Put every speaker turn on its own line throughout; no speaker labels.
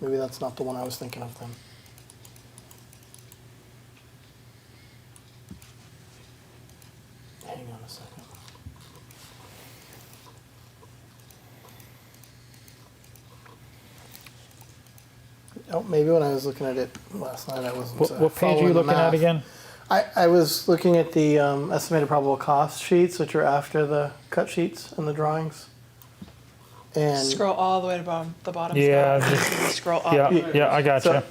Maybe that's not the one I was thinking of then. Hang on a second. Oh, maybe when I was looking at it last night, I wasn't.
What,
uh,
what page are
following
you
the
looking at
math.
again?
I, I was looking at the um, estimated probable cost sheets, which are after the cut sheets and the drawings. And
Scroll all the way to bottom, the bottom.
Yeah,
Scroll.
just-
Scroll up.
Yeah, yeah, I got
Uh, So-
gotcha.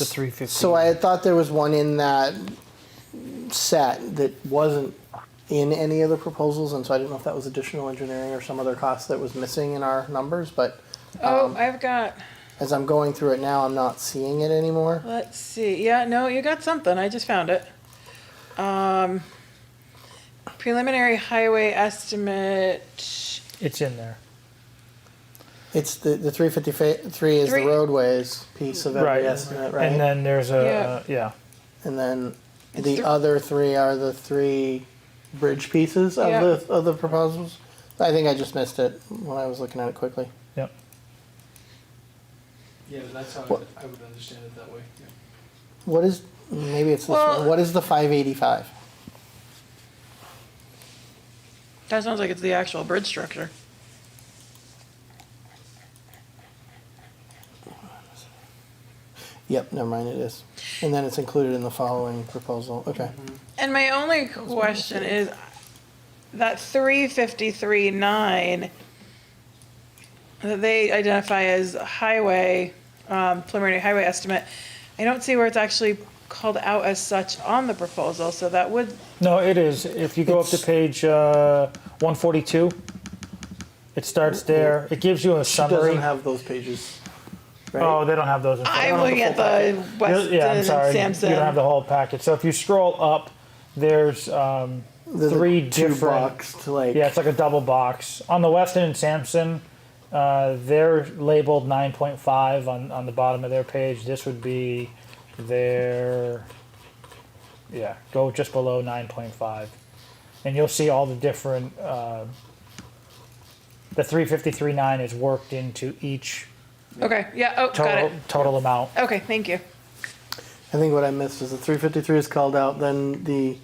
The three fifty.
So I had thought there was one in that set that wasn't in any of the proposals, and so I didn't know if that was additional engineering or some other cost that was missing in our numbers, but
Oh, I've got,
as I'm going through it now, I'm not seeing it anymore.
let's see. Yeah, no, you got something. I just found it. Um, preliminary highway estimate.
It's in there.
It's the, the three fifty three is the
Three-
roadways piece of every
Right.
estimate,
And
right?
then there's a, uh, yeah,
And then
It's
the
thr-
other three are the three bridge pieces of
Yeah.
the, of the proposals. I think I just missed it when I was looking at it quickly.
yep.
Yeah, but that's how I
What-
would, I would understand it that way, yeah.
What is, maybe it's this
Well-
one, what is the five eighty-five?
That sounds like it's the actual bridge structure.
Yep, never mind, it is. And then it's included in the following proposal, okay.
And my only question is, that three fifty-three nine that they identify as highway, um, preliminary highway estimate, I don't see where it's actually called out as such on the proposal, so that would,
No, it is. If you go up to
It's-
page uh, one forty two, it starts there. It gives you a summary.
Doesn't have those pages,
oh,
right?
they don't have those. In front.
I'm looking at the Weston
yeah, I'm
and
sorry. You don't have
Sampson.
the whole packet. So if you scroll up, there's um,
There's a
three
two
different.
boxed, like,
Yeah, it's like a double box. On the Weston and Sampson, uh, they're labeled 9.5 on, on the bottom of their page. This would be their, yeah, go just below 9.5. And you'll see all the different, uh, the 353.9 is worked into each
Okay, yeah, oh, got
total,
it.
total amount.
Okay, thank you.
I think what I missed is the three fifty-three is called out, then the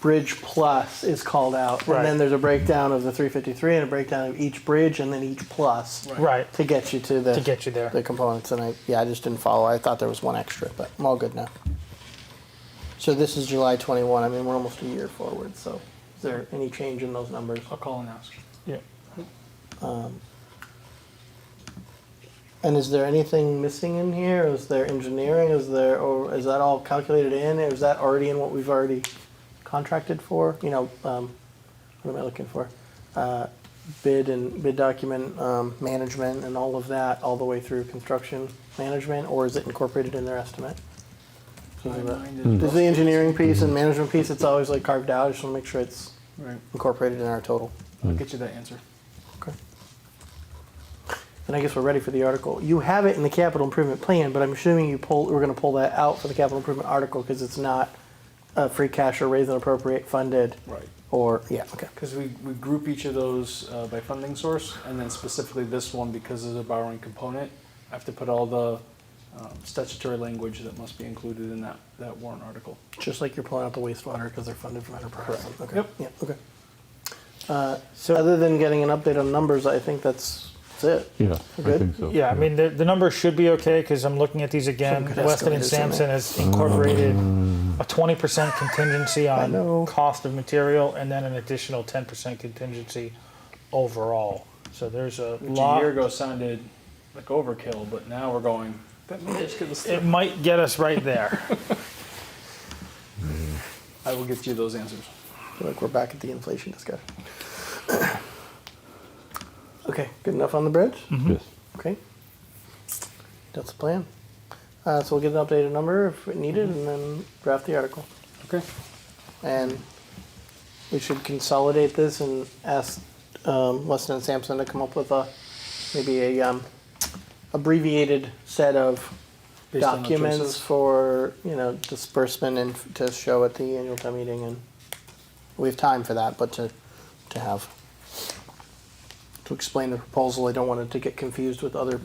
bridge plus is called out.
Right.
And then there's a breakdown of the three fifty-three and a breakdown of each bridge and then each plus.
Right,
To get you to
to
the,
get you there.
the components, and I, yeah, I just didn't follow, I thought there was one extra, but I'm all good now. So this is July twenty-one, I mean, we're almost a year forward, so is there any change in those numbers?
I'll call and ask.
Yeah.
And is there anything missing in here? Is there engineering? Is there, or is that all calculated in? Or is that already in what we've already contracted for? You know, um, what am I looking for? Uh, bid and bid document um, management and all of that, all the way through construction management, or is it incorporated in their estimate?
I
Is the-
minded-
Is the engineering piece and management piece? It's always like carved out. I just want to make sure it's
Right,
incorporated in our total.
I'll get you that answer.
Okay. And I guess we're ready for the article. You have it in the capital improvement plan, but I'm assuming you pull, we're gonna pull that out for the capital improvement article because it's not uh, free cash or raise and appropriate funded
Right.
or, yeah, okay.
Because we, we group each of those uh, by funding source, and then specifically this one, because of the borrowing component, I have to put all the um, statutory language that must be included in that, that warrant article.
Just like you're pulling out the wastewater because they're funded from enterprise.
Correct.
Okay.
Yep.
Yeah, okay. Uh, So other than getting an update on numbers, I think that's, that's it.
Yeah,
We're
I
good?
think so.
Yeah, I mean, the, the numbers should be okay because I'm looking at these again.
Some good
Weston and
escalators in there.
Sampson has incorporated a 20% contingency
know.
on cost of material and then an additional 10% contingency overall. So there's a
Which a
lot.
year ago sounded like overkill, but now we're going, that may just get us
It
through.
might get us right there.
I will get you those answers.
I feel like we're back at the inflation discussion. Okay, good enough on the bridge?
Yes.
Okay. That's the plan. Uh, so we'll get an updated number if needed and then draft the article.
Okay.
And we should consolidate this and ask um, Weston and Sampson to come up with a, maybe a um, abbreviated set of
Based on the
documents
choices.
for, you know, disbursement and f- to show at the annual town meeting and we have time for that, but to, to have, to explain the proposal, I don't want it to get confused with other